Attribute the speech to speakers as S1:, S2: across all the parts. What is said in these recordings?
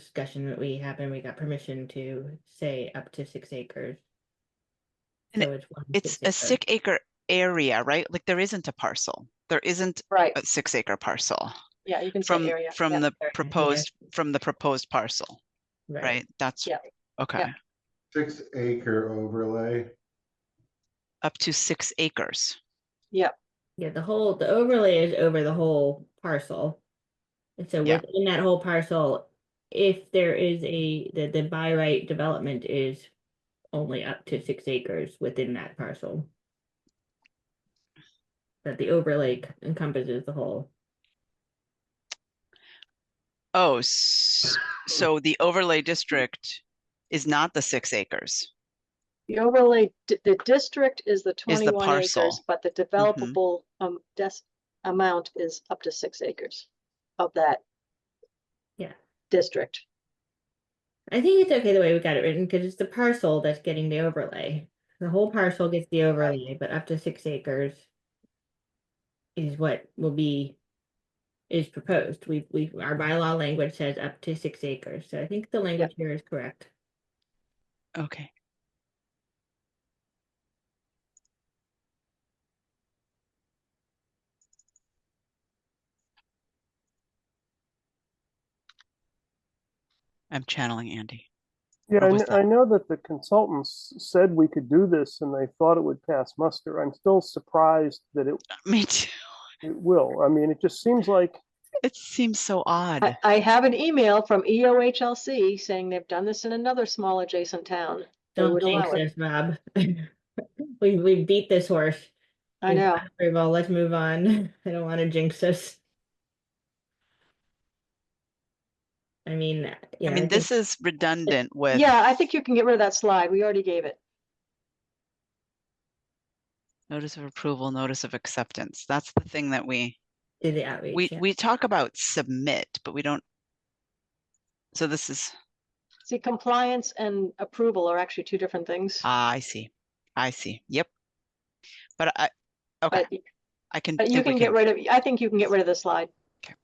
S1: discussion that we have, and we got permission to say up to six acres.
S2: And
S1: So it's one
S2: It's a
S1: acre.
S2: six acre area, right? Like there isn't a parcel. There isn't
S3: Right,
S2: a six acre parcel
S3: yeah, you can say
S2: Uh, from,
S3: area.
S2: from
S3: yeah.
S2: the
S1: area, yeah.
S2: proposed, from the proposed parcel, right? That's,
S3: Yeah,
S2: okay,
S4: Six acre overlay.
S2: up to six acres.
S1: Yeah, the whole, the overlay is over the whole parcel. And so
S2: Yeah.
S1: within that whole parcel, if there is a, the, the by right development is only up to six acres within that parcel. That the overlay encompasses the whole.
S2: Oh, s- so the overlay district is not the six acres.
S3: The overlay, di- the district is the
S2: Is the
S3: twenty-one acres,
S2: parcel. Mm-hmm.
S3: but the developable, um, des- amount is up to six acres of that.
S1: Yeah.
S3: District,
S1: I think it's okay the way we got it written, because it's the parcel that's getting the overlay. The whole parcel gets the overlay, but up to six acres. Is what will be. Is proposed, we, we, our bylaw language says up to six acres, so I think the language here is correct.
S2: Okay. I'm channeling Andy.
S5: Yeah,
S2: Or
S5: I
S2: was
S5: kn-
S2: that-
S5: I know that the consultants said we could do this and they thought it would pass muster. I'm still surprised that it,
S2: Me too.
S5: it will. I mean, it just seems like,
S2: It seems so odd.
S3: I, I have an email from E EOHLC saying they've done this in another small adjacent town. They
S1: Don't
S3: would
S1: jinx
S3: allow it.
S1: this, Rob. We, we beat this horse.
S3: I
S1: We've
S3: know,
S1: got approval, let's move on, I don't wanna jinx this. I mean, yeah.
S2: I mean,
S1: think-
S2: this is redundant with.
S3: yeah, I think you can get rid of that slide, we already gave it,
S2: Notice of approval, notice of acceptance. That's the thing that we,
S1: Do the outreach.
S2: we,
S1: yeah.
S2: we talk about submit, but we don't. So this is,
S3: see, compliance and approval are actually two different things.
S2: ah, I see. I see. Yep. But I, okay,
S3: But
S2: I can.
S3: But you
S2: think we
S3: can get rid of, I think you can get rid of the slide.
S2: Okay.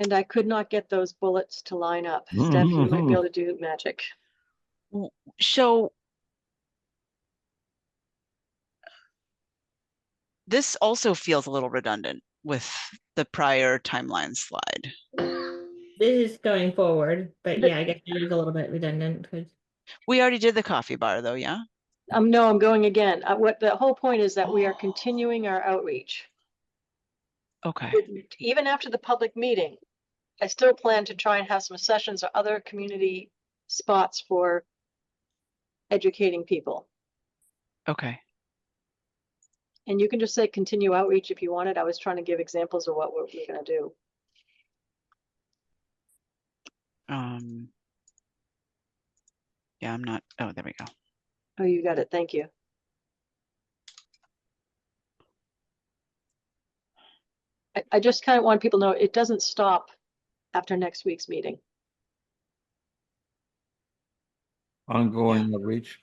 S3: And I could not get those bullets to line up. Steph, you might be able to do magic.
S2: So this also feels a little redundant with the prior timeline slide.
S1: This is going forward, but
S3: But-
S1: yeah, I guess it is a little bit redundant because
S2: We already did the coffee bar though, yeah?
S3: Um, no, I'm going again. Uh, what, the whole point is that we are
S2: Oh.
S3: continuing our outreach.
S2: Okay,
S3: Even after the public meeting, I still plan to try and have some sessions or other community spots for educating people.
S2: okay.
S3: And you can just say continue outreach if you wanted. I was trying to give examples of what we're we're gonna do.
S2: Um. Yeah, I'm not, oh, there we go.
S3: Oh, you got it. Thank you. I, I just kind of want people to know it doesn't stop after next week's meeting.
S6: Ongoing outreach.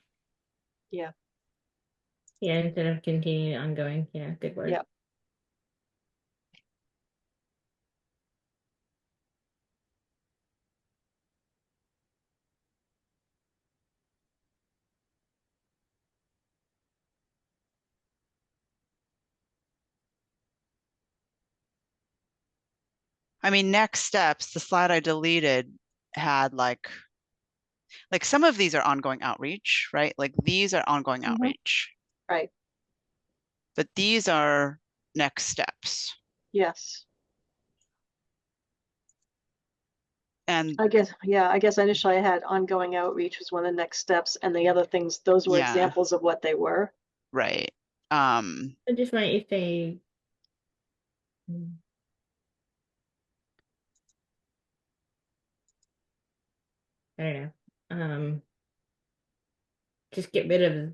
S1: yeah, instead of continuing ongoing, yeah, good word.
S3: Yep.
S2: I mean, next steps, the slide I deleted had like, like some of these are ongoing outreach, right? Like these are ongoing
S3: Mhm.
S2: outreach.
S3: Right.
S2: But these are next steps.
S3: Yes,
S2: And
S3: I guess, yeah, I guess initially I had ongoing outreach was one of the next steps and the other things, those were
S2: Yeah.
S3: examples of what they were.
S2: right. Um,
S1: I just might if they. Mm. I don't know, um. Just get rid of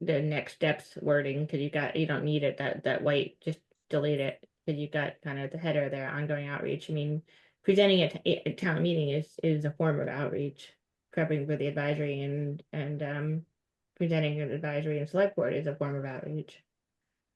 S1: the next steps wording, cause you got, you don't need it, that, that white, just delete it. Cause you got kind of the header there, ongoing outreach, I mean, presenting at, t- at town meeting is, is a form of outreach. Prepping for the advisory and, and, um, presenting an advisory and select board is a form of outreach.